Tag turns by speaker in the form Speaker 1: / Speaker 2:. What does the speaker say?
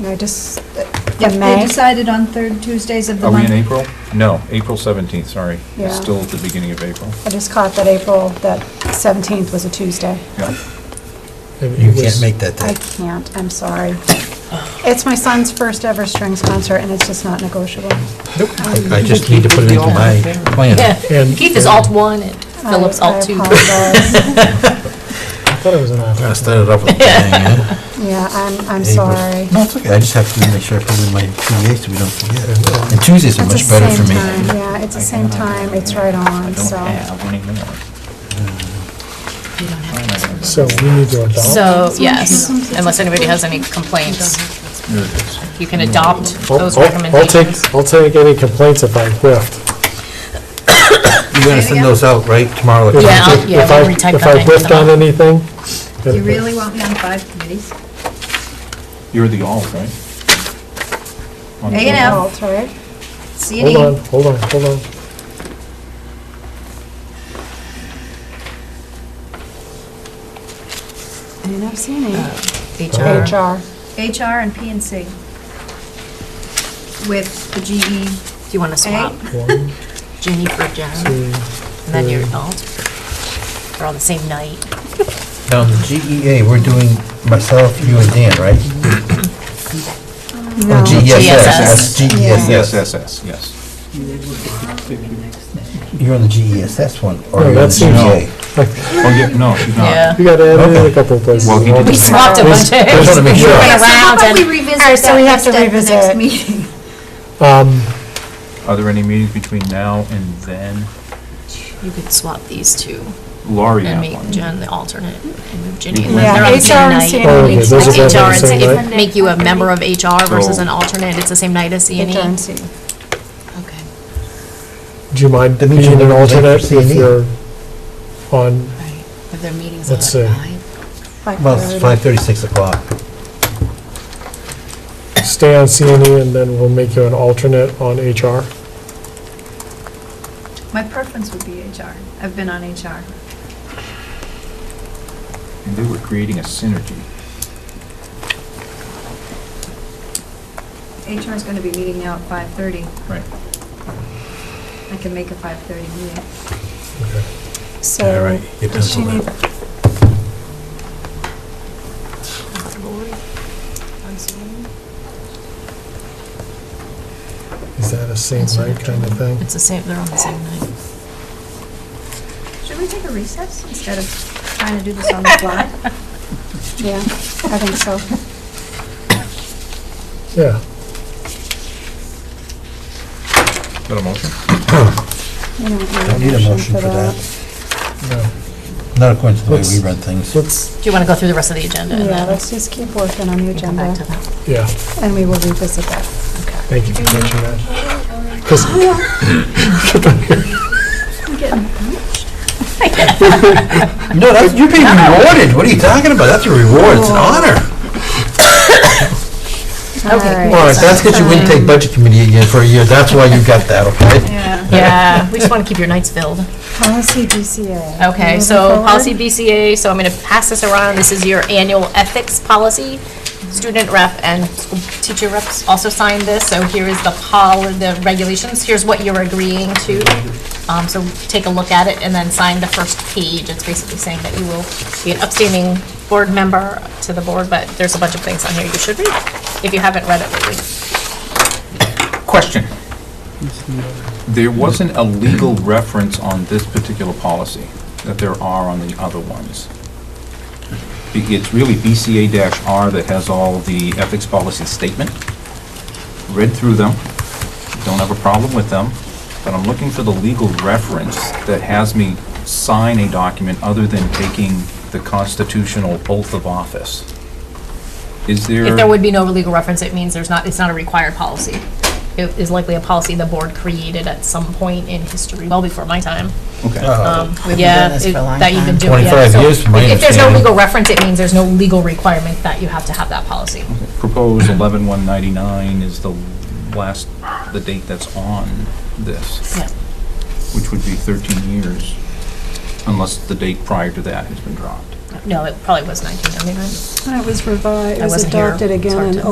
Speaker 1: No, just,
Speaker 2: If
Speaker 1: in
Speaker 2: they
Speaker 1: May.
Speaker 2: decided on third Tuesdays of the
Speaker 3: Are we
Speaker 2: month.
Speaker 3: in April? No, April 17th, sorry.
Speaker 1: Yeah.
Speaker 3: It's still at the beginning of April.
Speaker 1: I just caught that April, that 17th was a Tuesday.
Speaker 3: Yeah.
Speaker 4: You can't make that
Speaker 1: I
Speaker 4: day.
Speaker 1: can't, I'm sorry. It's my son's first ever strings concert, and it's just not negotiable.
Speaker 4: I just need to put it into my plan.
Speaker 5: Yeah,
Speaker 6: And-
Speaker 5: Keith is alt one and
Speaker 1: I-
Speaker 5: Phillips alt two.
Speaker 1: I apologize.
Speaker 6: I thought it was an
Speaker 4: I
Speaker 6: option.
Speaker 4: started off with the bang, yeah.
Speaker 1: Yeah, I'm, I'm
Speaker 4: April.
Speaker 1: sorry.
Speaker 4: No, it's okay, I just have to make sure I put it in my PDA so we don't forget. And Tuesdays are
Speaker 1: It's the
Speaker 4: much better
Speaker 1: same
Speaker 4: for me.
Speaker 1: time, yeah, it's the same time, it's right on, so.
Speaker 6: So we need to adopt.
Speaker 5: So, yes, unless anybody has any complaints,
Speaker 3: There it is.
Speaker 5: you can adopt
Speaker 6: I'll-
Speaker 5: those
Speaker 6: Oh, I'll- I'll
Speaker 5: recommendations.
Speaker 6: take, I'll take any complaints if I whiffed.
Speaker 4: You're gonna send those out, right, tomorrow?
Speaker 5: Yeah, I'll-
Speaker 6: If-
Speaker 5: yeah,
Speaker 6: if
Speaker 5: we'll
Speaker 6: I-
Speaker 5: retype
Speaker 6: If
Speaker 5: that
Speaker 6: I
Speaker 5: in
Speaker 6: whiffed on
Speaker 5: tomorrow.
Speaker 6: anything.
Speaker 2: Do you really want me on five committees?
Speaker 3: You're the alt, right? On
Speaker 2: A and
Speaker 3: the-
Speaker 2: F.
Speaker 1: Alt, right?
Speaker 2: C and
Speaker 6: Hold on,
Speaker 2: E,
Speaker 6: hold on, hold on.
Speaker 1: And I've seen it.
Speaker 4: Uh,
Speaker 5: HR.
Speaker 1: HR.
Speaker 2: HR, and P and C. With the E. GE,
Speaker 5: Do you want to swap
Speaker 6: One,
Speaker 5: Ginny for Jen?
Speaker 6: two,
Speaker 5: And then you're alt? They're on the same night.
Speaker 4: Now, the GEA, E we're doing myself, you and Dan, right? E
Speaker 1: No.
Speaker 4: Or GESS,
Speaker 5: GSS.
Speaker 4: E
Speaker 3: Yes,
Speaker 4: GESS.
Speaker 3: SS, yes.
Speaker 4: You're on the GESS one, or
Speaker 6: No,
Speaker 4: you're on the E
Speaker 6: that seems-
Speaker 4: GEA?
Speaker 3: Oh, yeah, no, she's
Speaker 5: Yeah.
Speaker 3: not.
Speaker 6: Ah. You gotta add in
Speaker 4: Okay.
Speaker 6: a couple of places.
Speaker 3: Well, we
Speaker 6: Hold
Speaker 3: do-
Speaker 5: We
Speaker 6: on.
Speaker 5: swapped a bunch
Speaker 4: I just wanna
Speaker 5: of,
Speaker 4: make
Speaker 5: we
Speaker 4: sure.
Speaker 5: went
Speaker 2: so how
Speaker 5: around
Speaker 2: about we
Speaker 5: and,
Speaker 2: revisit
Speaker 1: All right, so
Speaker 2: that
Speaker 1: we have
Speaker 2: next-
Speaker 1: to
Speaker 2: at the
Speaker 1: revisit.
Speaker 2: next meeting?
Speaker 6: Um,
Speaker 3: Are there any meetings between now and then?
Speaker 5: you could swap these two
Speaker 3: Laurie
Speaker 5: and
Speaker 3: had
Speaker 5: make
Speaker 3: one.
Speaker 5: Jen the alternate and move Ginny. And
Speaker 1: Yeah,
Speaker 5: then they're on the
Speaker 1: HR
Speaker 5: same
Speaker 1: and
Speaker 5: night.
Speaker 1: C&E.
Speaker 6: Oh, okay, those are both on
Speaker 5: HR
Speaker 6: the
Speaker 5: and
Speaker 6: same
Speaker 5: C-
Speaker 6: night?
Speaker 5: if- make you a member of HR versus
Speaker 3: So-
Speaker 5: an alternate, it's the same night as C and E.
Speaker 1: HR and C.
Speaker 5: Okay.
Speaker 6: do you mind
Speaker 4: That means
Speaker 6: being
Speaker 4: you
Speaker 6: an
Speaker 4: never voted for
Speaker 6: alternate if
Speaker 4: C&E.
Speaker 6: you're on,
Speaker 5: Right, if their meeting's
Speaker 6: Let's
Speaker 5: on at
Speaker 6: see.
Speaker 5: five.
Speaker 4: Well, it's 5:30, 6 o'clock.
Speaker 6: stay on C and E and then we'll make you an alternate on HR?
Speaker 2: My preference would be HR. I've been on HR.
Speaker 3: And they were creating a synergy.
Speaker 2: HR is going to be meeting now at 5:30.
Speaker 3: Right.
Speaker 2: I can make a 5:30 meeting.
Speaker 6: Okay.
Speaker 4: All
Speaker 1: So,
Speaker 4: right, you
Speaker 1: does she
Speaker 4: pencil
Speaker 1: need,
Speaker 4: that.
Speaker 6: Is that a same right kind of thing?
Speaker 5: It's the same, they're on the same night.
Speaker 2: Should we take a recess instead of trying to do this on the fly?
Speaker 1: yeah, I think so.
Speaker 6: Yeah.
Speaker 3: Got a motion?
Speaker 1: You
Speaker 4: Don't
Speaker 1: don't
Speaker 4: need a motion for that. Not according to the way we
Speaker 6: Let's-
Speaker 4: run things.
Speaker 6: Let's,
Speaker 5: Do you want to go through the rest of the agenda? and
Speaker 1: Yeah,
Speaker 5: then
Speaker 1: let's just keep working on the
Speaker 5: we can go back to
Speaker 1: agenda,
Speaker 5: that?
Speaker 6: yeah,
Speaker 1: and we will revisit that.
Speaker 6: thank you for catching that.
Speaker 4: No, that's, you're being rewarded. What are you talking about? That's a reward. It's an honor.
Speaker 1: Okay.
Speaker 4: All right, that's because you wouldn't take budget committee again for a year. That's why you got that, okay?
Speaker 2: Yeah.
Speaker 5: Yeah, we just want to keep your nights filled.
Speaker 1: Policy BCA.
Speaker 5: Okay,
Speaker 1: Moving
Speaker 5: so
Speaker 1: forward.
Speaker 5: policy BCA, so I'm going to pass this around. This is your annual ethics policy. Student rep and school teacher reps also signed this, so here is the pol, the regulations. Here's what you're agreeing to. Um, So take a look at it and then sign the first page. It's basically saying that you will be an upstanding board member to the board, but there's a bunch of things on here you should read. If you haven't read it, read it.
Speaker 3: Question. There wasn't a legal reference on this particular policy that there are on the other ones. Be- It's really BCA-R that has all the ethics policy statement. Read through them, don't have a problem with them, but I'm looking for the legal reference that has me sign a document other than taking the constitutional oath of office. Is there?
Speaker 5: If there would be no legal reference, it means there's not, it's not a required policy. It is likely a policy the board created at some point in history, well before my time. Um,
Speaker 3: Okay.
Speaker 4: Uh,
Speaker 7: We've been
Speaker 5: Yeah,
Speaker 7: doing this
Speaker 5: it-
Speaker 7: for a long
Speaker 5: that you've been
Speaker 7: time.
Speaker 5: doing. yeah.
Speaker 4: 25
Speaker 5: So
Speaker 4: years from my
Speaker 5: If there's no
Speaker 4: understanding.
Speaker 5: legal reference, it means there's no legal requirement that you have to have that policy.
Speaker 3: proposed 11199 is the last, the date that's on this,
Speaker 5: Yeah.
Speaker 3: which would be 13 years, unless the date prior to that has been dropped.
Speaker 5: No, it probably was 1999.
Speaker 1: When it was revised, it
Speaker 5: I
Speaker 1: was
Speaker 5: wasn't here.
Speaker 1: adopted
Speaker 5: It's
Speaker 1: again
Speaker 5: hard
Speaker 1: in
Speaker 5: to-